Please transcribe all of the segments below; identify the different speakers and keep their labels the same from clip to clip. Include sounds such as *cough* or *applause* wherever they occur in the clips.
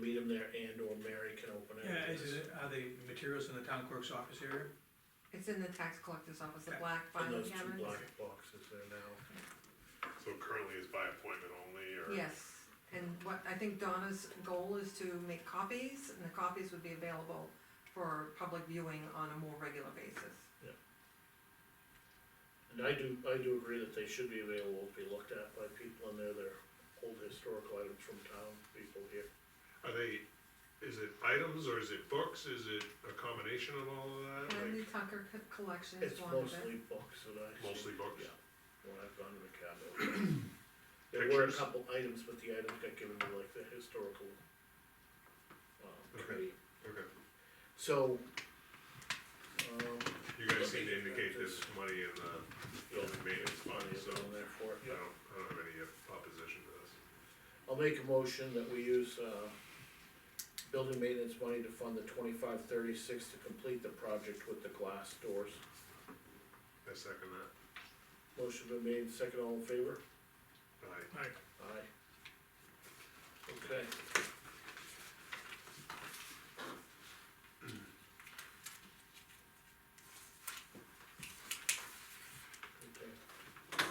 Speaker 1: meet them there and or Mary can open it.
Speaker 2: Yeah, is it, are the materials in the town clerk's office area?
Speaker 3: It's in the tax collector's office, the
Speaker 2: Yeah.
Speaker 3: black
Speaker 1: And
Speaker 3: filing
Speaker 1: those two
Speaker 3: cabinets.
Speaker 1: black boxes there now.
Speaker 4: So currently it's by appointment only, or?
Speaker 3: Yes, and what, I think Donna's goal is to make copies, and the copies would be available for public viewing on a more regular basis.
Speaker 1: And I do, I do agree that they should be available to be looked at by people and they're their old historical items from town, people here.
Speaker 4: Are they, is it items or is it books, is it a combination of all of that,
Speaker 3: Henry
Speaker 4: like,
Speaker 3: Tucker co- collection is
Speaker 1: It's
Speaker 3: one of it.
Speaker 1: mostly books that I see.
Speaker 4: mostly books?
Speaker 1: Yeah, when I've gone to the
Speaker 4: *clears throat*
Speaker 1: cabinet. There were a
Speaker 4: Pictures?
Speaker 1: couple items, but the items got given to like the historical, uh,
Speaker 4: Okay.
Speaker 1: committee.
Speaker 4: Okay,
Speaker 1: So, um,
Speaker 4: you guys seem to indicate there's money in the
Speaker 1: yeah,
Speaker 4: building maintenance fund,
Speaker 1: money is
Speaker 4: so
Speaker 1: on there for it,
Speaker 4: I
Speaker 1: yeah.
Speaker 4: don't, I don't have any uh, opposition to this.
Speaker 1: I'll make a motion that we use, uh, building maintenance money to fund the twenty-five thirty-six to complete the project with the glass doors.
Speaker 4: I second that,
Speaker 1: Motion been made, second all in favor?
Speaker 4: aye.
Speaker 1: Aye. Okay. Okay.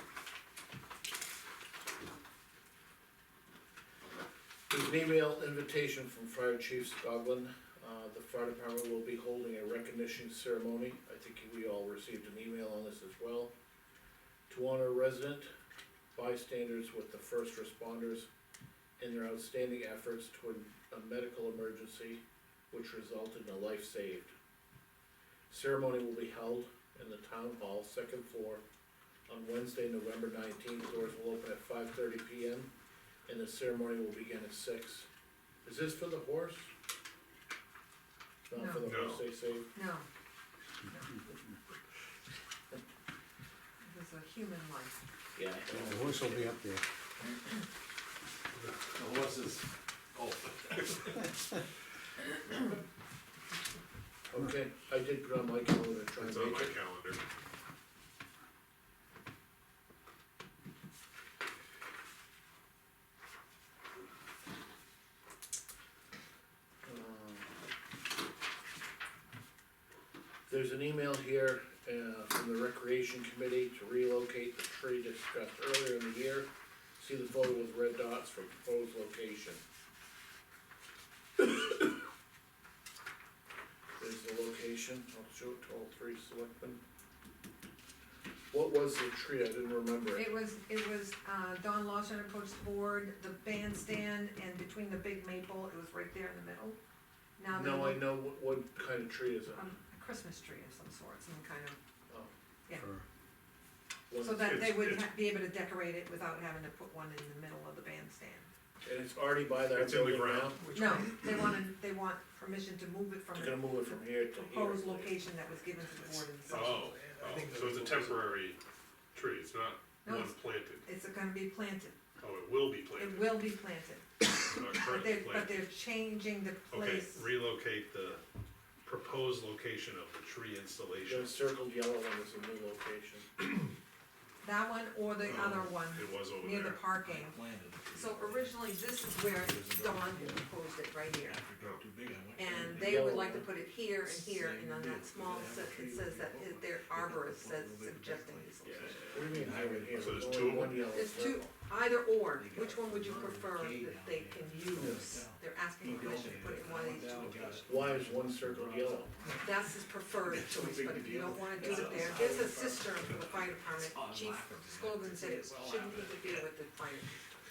Speaker 1: There's an email invitation from Fire Chief Scotland. Uh, the fire department will be holding a recognition ceremony. I think we all received an email on this as well. To honor a resident, bystanders with the first responders in their outstanding efforts toward a medical emergency which resulted in a life saved. Ceremony will be held in the town hall, second floor, on Wednesday, November nineteenth, doors will open at five thirty P M, and the ceremony will begin at six. Is this for the horse? Not for the
Speaker 4: No.
Speaker 1: horse they saved?
Speaker 3: No. This is a human life.
Speaker 1: Yeah.
Speaker 5: The horse will be up there.
Speaker 6: The horses, oh,
Speaker 1: Okay, I did put on my calendar, try and
Speaker 4: It's on
Speaker 1: make
Speaker 4: my
Speaker 1: it.
Speaker 4: calendar.
Speaker 1: Um, There's an email here, uh, from the recreation committee to relocate the tree discussed earlier in the year. See the photo with red dots for proposed location. There's the location, I'll show it to all three selectmen. What was the tree, I didn't remember it.
Speaker 3: It was, it was, uh, Don Lawson approached the board, the bandstand, and between the big maple, it was right there in the middle. Now
Speaker 1: No, I
Speaker 3: they're,
Speaker 1: know, what, what kind of tree is it?
Speaker 3: um, a Christmas tree of some sort, some kind of Yeah.
Speaker 5: for-
Speaker 1: What-
Speaker 3: So that they
Speaker 4: It's-
Speaker 3: would
Speaker 4: it's-
Speaker 3: ha- be able to decorate it without having to put one in the middle of the bandstand.
Speaker 1: And it's already by that
Speaker 4: It's in the
Speaker 1: building
Speaker 4: ground.
Speaker 1: now?
Speaker 2: Which
Speaker 3: No,
Speaker 2: one?
Speaker 3: they wanna, they want permission to move it from
Speaker 1: They're
Speaker 3: the
Speaker 1: gonna move it from here to here.
Speaker 3: proposed location that was given to the board in the.
Speaker 4: Oh, oh,
Speaker 2: I think
Speaker 4: so it's a
Speaker 2: those-
Speaker 4: temporary tree, it's not
Speaker 3: No,
Speaker 4: one
Speaker 3: it's-
Speaker 4: planted,
Speaker 3: It's gonna be planted,
Speaker 4: oh, it will be
Speaker 3: it
Speaker 4: planted,
Speaker 3: will be planted,
Speaker 4: not
Speaker 3: but
Speaker 4: currently
Speaker 3: they're, but
Speaker 4: planted.
Speaker 3: they're changing the
Speaker 4: Okay,
Speaker 3: place.
Speaker 4: relocate the proposed location of the tree installation.
Speaker 1: The circled yellow one is a new location.
Speaker 3: That one or the
Speaker 4: Oh,
Speaker 3: other one,
Speaker 4: It was over
Speaker 3: near the
Speaker 4: there.
Speaker 3: parking.
Speaker 6: planted.
Speaker 3: So originally, this is where Don had proposed it, right here.
Speaker 6: After it got too big, I went.
Speaker 3: And
Speaker 6: to-
Speaker 3: they would like to put it here and here, and on that small, se- it says that it- their arborist says suggesting this location.
Speaker 1: What do you mean hybrid here?
Speaker 4: So there's
Speaker 1: Only
Speaker 4: two of them?
Speaker 1: one yellow
Speaker 3: It's two,
Speaker 1: circle.
Speaker 3: either or, which one would you prefer that they can use? They're asking
Speaker 6: He
Speaker 3: permission to put it in one of these two
Speaker 6: donated it.
Speaker 3: locations.
Speaker 1: Why is one circled yellow?
Speaker 3: That's his preferred choice, but if you don't wanna do it there, there's a cistern for the fire department. Chief Scogan said it shouldn't interfere with the fire.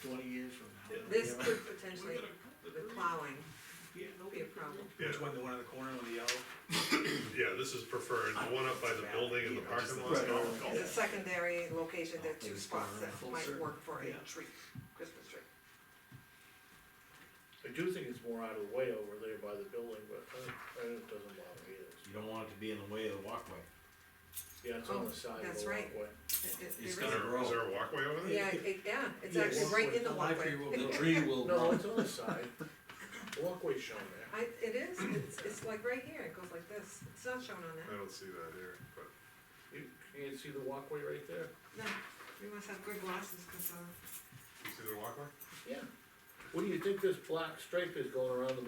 Speaker 6: Twenty years from now.
Speaker 3: This could potentially, with plowing, be a problem.
Speaker 4: Yeah,
Speaker 2: Which one, the one in the corner with the yellow?
Speaker 4: yeah, this is preferred, the one up by the building and the parking lot.
Speaker 6: Right.
Speaker 3: As a secondary location, there are two spots that might work for a
Speaker 6: Yeah.
Speaker 3: tree, Christmas tree.
Speaker 1: I do think it's more out of the way over there by the building, but I, I, it doesn't bother me either.
Speaker 6: You don't want it to be in the way of the walkway.
Speaker 1: Yeah, it's on
Speaker 3: Oh,
Speaker 1: the side of
Speaker 3: that's
Speaker 1: the
Speaker 3: right.
Speaker 1: walkway.
Speaker 3: It- it-
Speaker 6: It's
Speaker 3: there
Speaker 4: Is
Speaker 3: is-
Speaker 6: gonna-
Speaker 4: there, is there a walkway over there?
Speaker 3: Yeah, it, yeah, it's
Speaker 1: Yeah,
Speaker 3: actually right in the
Speaker 2: walkway.
Speaker 3: walkway.
Speaker 2: Library will
Speaker 3: *laughs*
Speaker 6: The tree will
Speaker 1: No,
Speaker 6: grow.
Speaker 1: it's on the side. The walkway's shown there.
Speaker 3: I, it is, it's, it's like right here, it goes like this, it's not shown on
Speaker 4: I don't see that here, but.
Speaker 1: You can't see the walkway right there?
Speaker 3: that, no, we must have good glasses, cause, uh,
Speaker 4: You see the walkway?
Speaker 1: Yeah. What do you think this black stripe is going around the building